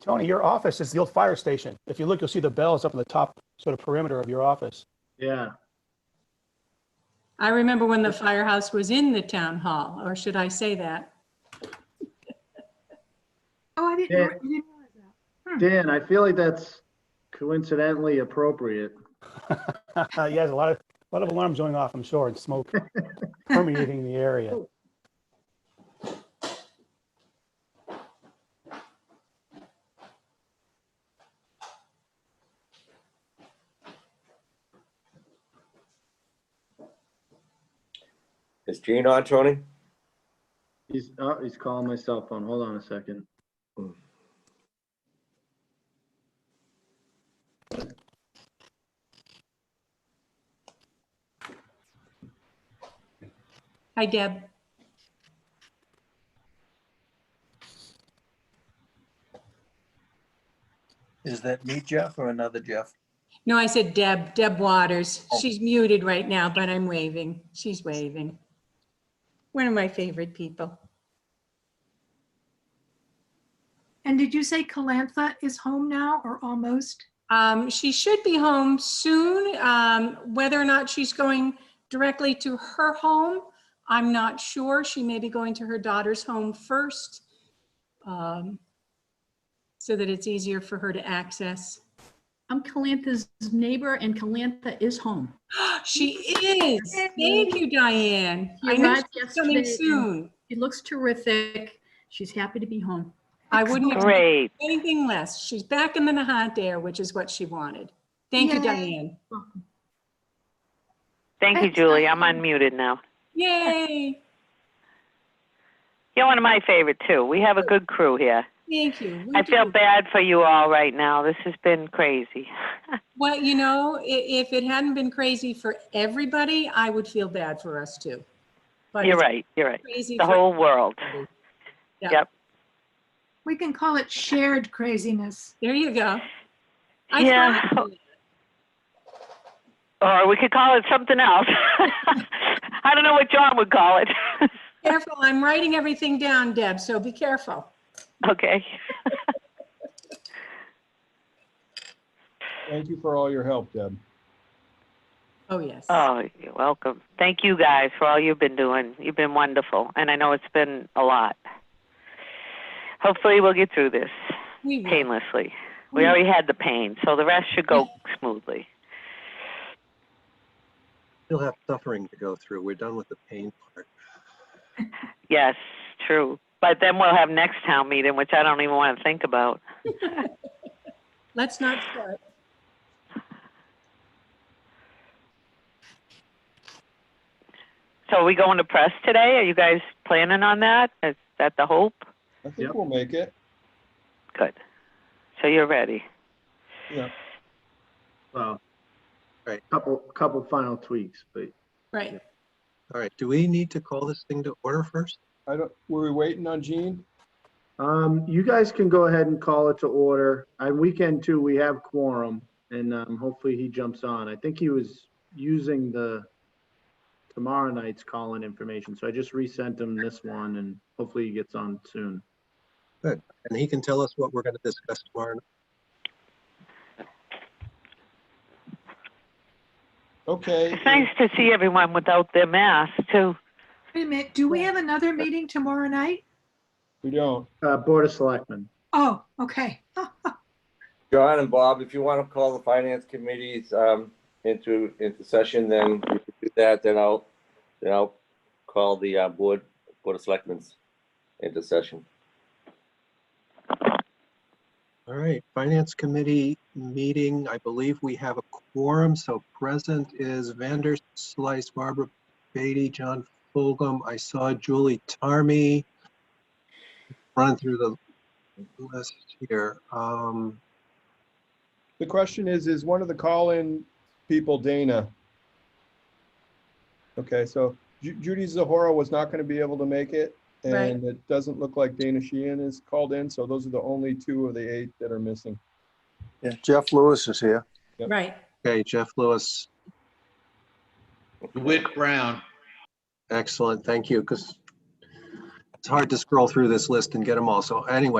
Tony, your office is the old fire station. If you look, you'll see the bells up in the top sort of perimeter of your office. Yeah, I remember when the firehouse was in the town hall, or should I say that? Oh, I didn't, Yeah. re- I didn't realize that. Dan, I feel like that's coincidentally appropriate. Yes, a lot of, a lot of alarms going off, I'm sure, and smoke permeating the area. Is Gene on, Tony? He's, oh, he's calling my cell phone. Hold on a second. Hi, Deb. Is that me, Jeff, or another Jeff? No, I said Deb, Deb Waters. She's muted right now, but I'm waving. She's waving. One of my favorite people. And did you say Calantha is home now or almost? Um, she should be home soon. Um, whether or not she's going directly to her home, I'm not sure. She may be going to her daughter's home first. um, So that it's easier for her to access. I'm Calantha's neighbor and Calantha is home. She is. Thank you, Diane. She I know arrived she's coming yesterday. soon. She looks terrific. She's happy to be home. I wouldn't expect Great. anything less. She's back in the Nahat air, which is what she wanted. Thank you, Yay. Diane. Thank you, Julie. I'm unmuted now. Yay. You're one of my favorite, too. We have a good crew here. Thank you. We I do. feel bad for you all right now. This has been crazy. Well, you know, i- if it hadn't been crazy for everybody, I would feel bad for us too. But You're it's right. You're right. Crazy The for whole world. everybody. We can call it shared craziness. There you go. I Yeah. thought- Or we could call it something else. I don't know what John would call it. Careful, I'm writing everything down, Deb, so be careful. okay. Thank you for all your help, Deb. Oh, yes. Oh, you're welcome. Thank you guys for all you've been doing. You've been wonderful. And I know it's been a lot. Hopefully, we'll get through this We will. painlessly. We already had the pain, so the rest should go smoothly. Still have suffering to go through. We're done with the pain part. Yes, true. But then we'll have next town meeting, which I don't even want to think about. Let's not start. So are we going to press today? Are you guys planning on that? Is that the hope? I Yep. think we'll make it. Good. So you're ready. Well, Right. couple, couple final tweaks, but Right. All right, do we need to call this thing to order first? I don't, were we waiting on Gene? Um, you guys can go ahead and call it to order. On weekend two, we have quorum and, um, hopefully he jumps on. I think he was using the tomorrow night's call-in information, so I just resent him this one and hopefully he gets on soon. And he can tell us what we're going to discuss tomorrow. Okay. It's nice to see everyone without their mask too. Wait a minute, do we have another meeting tomorrow night? We don't. Uh, Board of Selectmen. Oh, okay. Oh, John and Bob, if you want to call the finance committees um, into, into session, then we can do that, then I'll, then I'll call the uh, board, Board of Selectmen's into session. All right, Finance Committee meeting, I believe we have a quorum, so present is Vander Slice, Barbara Beatty, John Fulgham. I saw Julie Tarmy. Run through the list here. Um, The question is, is one of the call-in people Dana? Okay, so Ju- Judy Zahora was not going to be able to make it. Right. And it doesn't look like Dana Sheehan is called in, so those are the only two of the eight that are missing. Yeah, Jeff Lewis is here. Right. Okay, Jeff Lewis, Whit Brown. excellent, thank you, because it's hard to scroll through this list and get them all. So anyway,